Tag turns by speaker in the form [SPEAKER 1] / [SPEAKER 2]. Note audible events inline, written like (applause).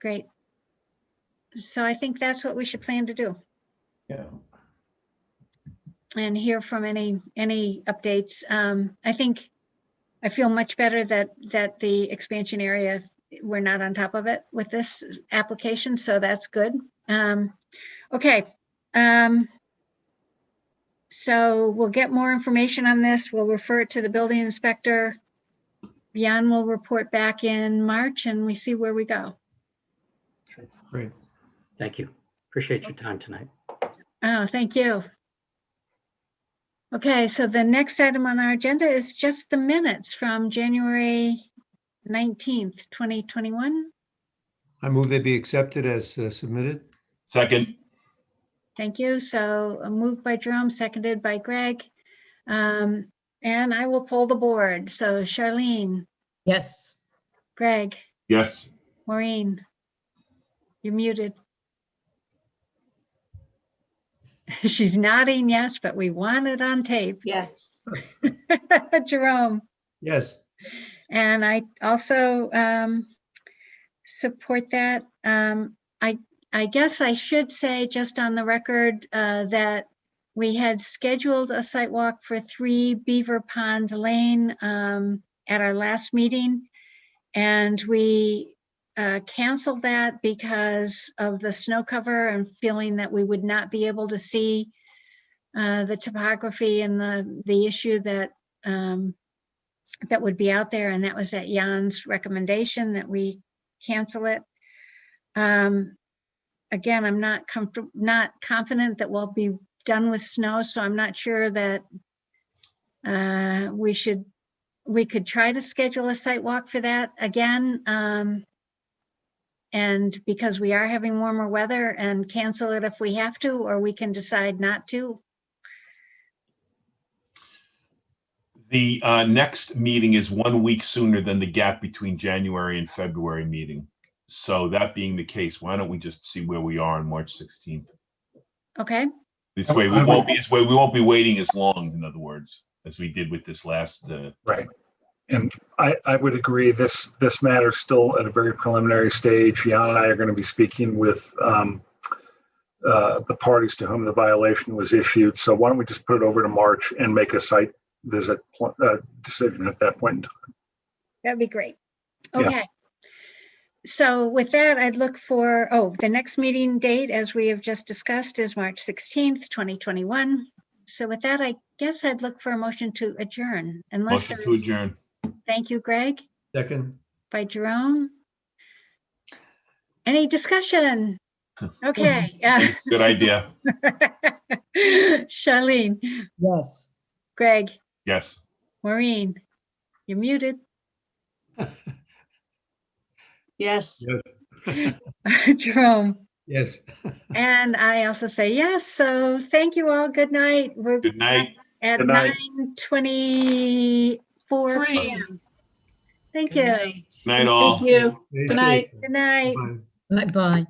[SPEAKER 1] Great. So I think that's what we should plan to do
[SPEAKER 2] Yeah.
[SPEAKER 1] and hear from any, any updates. Um, I think I feel much better that, that the expansion area, we're not on top of it with this application, so that's good. Um, okay. Um, so we'll get more information on this. We'll refer it to the building inspector. Jan will report back in March and we see where we go.
[SPEAKER 3] Thank you. Appreciate your time tonight.
[SPEAKER 1] Oh, thank you. Okay, so the next item on our agenda is just the minutes from January 19th, 2021.
[SPEAKER 4] I move they be accepted as uh, submitted.
[SPEAKER 2] Second,
[SPEAKER 1] Thank you. So uh, moved by Jerome, seconded by Greg. Um, And I will poll the board. So Charlene,
[SPEAKER 5] Yes,
[SPEAKER 1] Greg,
[SPEAKER 2] yes.
[SPEAKER 1] Maureen, you're muted. (laughs) She's nodding yes, but we want it on tape.
[SPEAKER 6] Yes.
[SPEAKER 1] (laughs) Jerome?
[SPEAKER 4] Yes.
[SPEAKER 1] And I also um, support that. Um, I, I guess I should say just on the record uh, that we had scheduled a site walk for three Beaver Pond Lane um, at our last meeting. And we uh, canceled that because of the snow cover and feeling that we would not be able to see uh, the topography and the, the issue that um, that would be out there, and that was at Jan's recommendation that we cancel it. Um, again, I'm not comfortable, not confident that we'll be done with snow, so I'm not sure that uh, we should, we could try to schedule a site walk for that again. Um, and because we are having warmer weather and cancel it if we have to, or we can decide not to.
[SPEAKER 2] The uh, next meeting is one week sooner than the gap between January and February meeting. So that being the case, why don't we just see where we are on March 16th?
[SPEAKER 1] Okay,
[SPEAKER 2] This way, we won't be, this way, we won't be waiting as long, in other words, as we did with this last, uh,
[SPEAKER 7] Right. And I, I would agree, this, this matter's still at a very preliminary stage. Jan and I are going to be speaking with um, uh, the parties to whom the violation was issued. So why don't we just put it over to March and make a site visit pl- uh, decision at that point? in time?
[SPEAKER 1] That'd be great.
[SPEAKER 7] Yeah.
[SPEAKER 1] Okay. So with that, I'd look for, oh, the next meeting date, as we have just discussed, is March sixteenth, twenty twenty-one. So with that, I guess I'd look for a motion to adjourn unless
[SPEAKER 2] motion
[SPEAKER 1] there
[SPEAKER 2] to
[SPEAKER 1] is,
[SPEAKER 2] adjourn.
[SPEAKER 1] thank you, Greg,
[SPEAKER 4] Second.
[SPEAKER 1] by Jerome. Any
[SPEAKER 2] (laughs)
[SPEAKER 1] discussion? Okay. (laughs) yeah.
[SPEAKER 2] Good idea.
[SPEAKER 1] Charlene,
[SPEAKER 5] yes.
[SPEAKER 1] Greg,
[SPEAKER 2] Yes.
[SPEAKER 1] Maureen, you're muted. (laughs)
[SPEAKER 6] Yes.
[SPEAKER 1] Jerome.
[SPEAKER 4] Yes.
[SPEAKER 1] And I also say yes. So thank you all. Good night. We're
[SPEAKER 2] Good
[SPEAKER 6] (laughs)
[SPEAKER 2] night.
[SPEAKER 1] at
[SPEAKER 7] Good night.
[SPEAKER 1] nine twenty-four.
[SPEAKER 6] Three.
[SPEAKER 1] Thank
[SPEAKER 4] Good
[SPEAKER 1] you.
[SPEAKER 2] Night all.
[SPEAKER 6] Thank you.
[SPEAKER 4] Stay
[SPEAKER 6] Good night.
[SPEAKER 4] safe.
[SPEAKER 1] Good night.
[SPEAKER 4] Bye.
[SPEAKER 5] Bye.